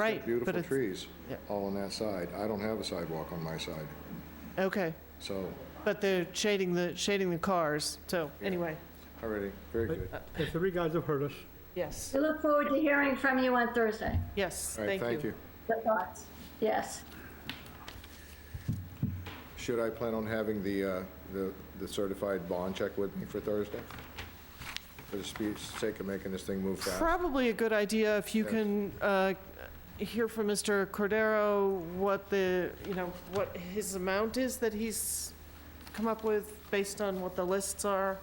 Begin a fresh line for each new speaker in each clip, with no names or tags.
Right, but
Beautiful
it's-
trees,
yeah.
all on that side. I don't have a sidewalk on my side,
Okay,
so,
but they're shading the, shading the cars, so,
Yeah.
anyway,
already, very
But-
good.
uh,
The three guys have heard us.
yes,
We look forward to hearing from you on Thursday.
yes,
All right,
thank you.
The thoughts, yes.
Should I plan on having the, uh, the the certified bond check with me for Thursday? For the speech, sake of making this thing move fast?
Probably a good idea if you
Yes.
can uh, hear from Mr. Cordero what the, you know, what his amount is that he's come up with based on what the lists are,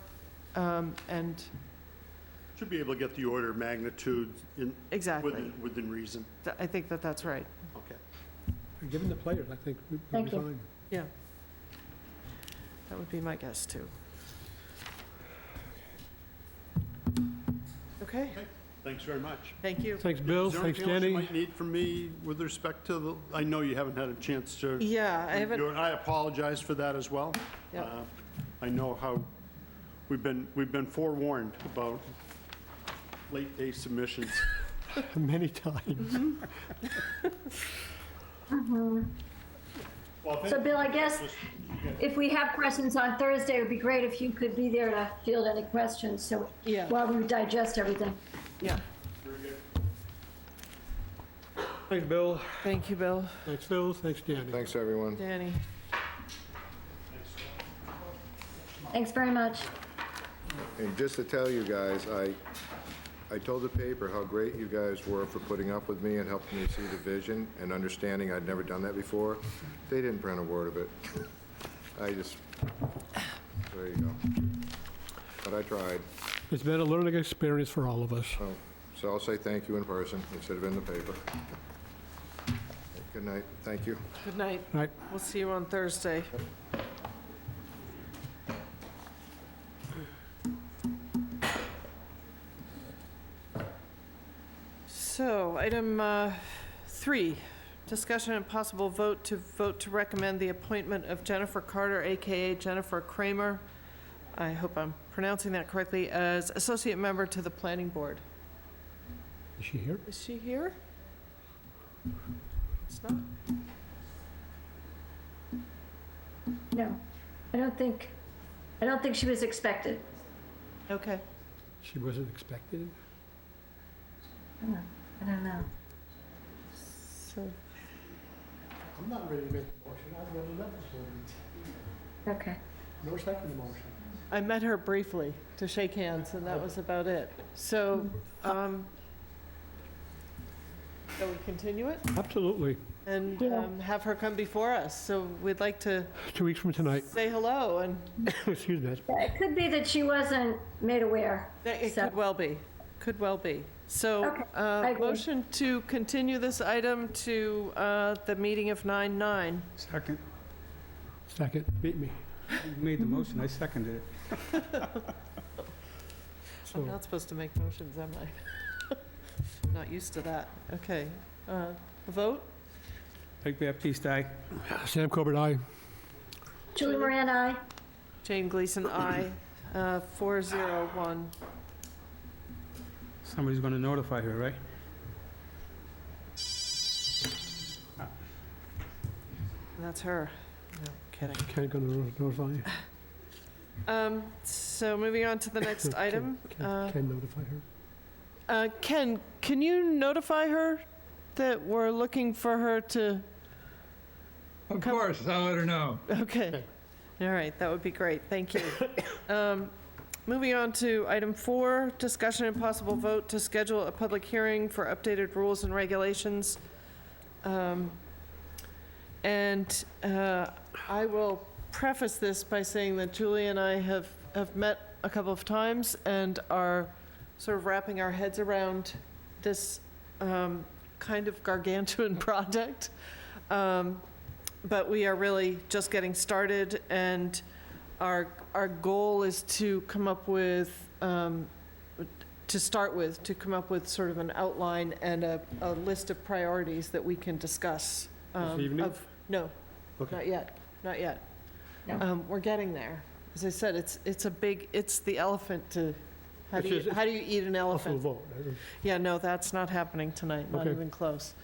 um, and,
Should be able to get the order of magnitude in,
exactly.
within, within reason.
Th- I think that that's right,
Okay.
Given the players, I think we- we'll be
Thank you.
fine.
yeah. That would be my guess, too. Okay,
Thanks very much.
thank you.
Thanks, Bill.
Is there
Thanks,
anything else you
Danny.
might need from me with respect to the, I know you haven't had a chance to.
Yeah, I haven't,
review it. I apologize for that as well.
Yep.
Uh, I know how, we've been, we've been forewarned about late day submissions.
Many times.
Well,
So
thank
Bill, I guess if we have questions on Thursday, it would be great if you could be there to field any questions, so
Yeah.
while we digest everything.
yeah,
Thanks, Bill.
thank you, Bill,
Thanks, Phil. Thanks, Danny.
Thanks, everyone.
Danny.
Thanks very much.
And just to tell you guys, I, I told the paper how great you guys were for putting up with me and helping me see the vision and understanding I'd never done that before. They didn't print a word of it. I just, there you go. But I tried,
It's been a learning experience for all of us.
so, so I'll say thank you in person instead of in the paper. Good night, thank you.
Good night.
Right?
We'll see you on Thursday. So, item uh, three, discussion and possible vote to vote to recommend the appointment of Jennifer Carter, AKA Jennifer Kramer, I hope I'm pronouncing that correctly, as associate member to the planning board.
Is she here?
Is she here? It's not?
No, I don't think, I don't think she was expected.
Okay.
She wasn't expected.
I don't know.
So,
I'm not ready to make the motion. I've never met before.
Okay.
No second motion.
I met her briefly to shake hands, and that was about it. So, um, shall we continue it
Absolutely.
and
Yeah.
um, have her come before us? So we'd like to
Two weeks from tonight.
say hello, and
Excuse me.
It could be that she wasn't made aware.
that- it
So-
could well be, could well be. So,
Okay, I
uh,
agree.
motion to continue this item to uh, the meeting of 9/9.
Second,
Second. Beat me.
you made the motion, I seconded it.
I'm
So,
not supposed to make motions, am I? Not used to that. Okay. Uh, Vote?
Rick Baptiste, aye.
Sam Corbett, aye.
Julie Moran, aye.
Jane Gleason, aye. Uh, 401.
Somebody's gonna notify her, right?
That's her. No, kidding.
Can't go to notify.
Uh,
Um, so moving on to the next item. Uh,
Can notify her.
uh, Ken, can you notify her that we're looking for her to,
Of
Come-
course, I'll let her know.
okay. All right, that would be great, thank you. Um, moving on to item four, discussion and possible vote to schedule a public hearing for updated rules and regulations. Um, and, uh, I will preface this by saying that Julie and I have, have met a couple of times and are sort of wrapping our heads around this um, kind of gargantuan project. Um, But we are really just getting started, and our, our goal is to come up with, um, to start with, to come up with sort of an outline and a, a list of priorities that we can discuss. um,
evening?
of- No,
Okay.
not yet, not yet.
No.
Um, We're getting there. As I said, it's, it's a big, it's the elephant to, how do
It's
you,
just-
how do you eat an
Off the
elephant?
vote.
Yeah, no, that's not happening tonight, not
Okay.
even close.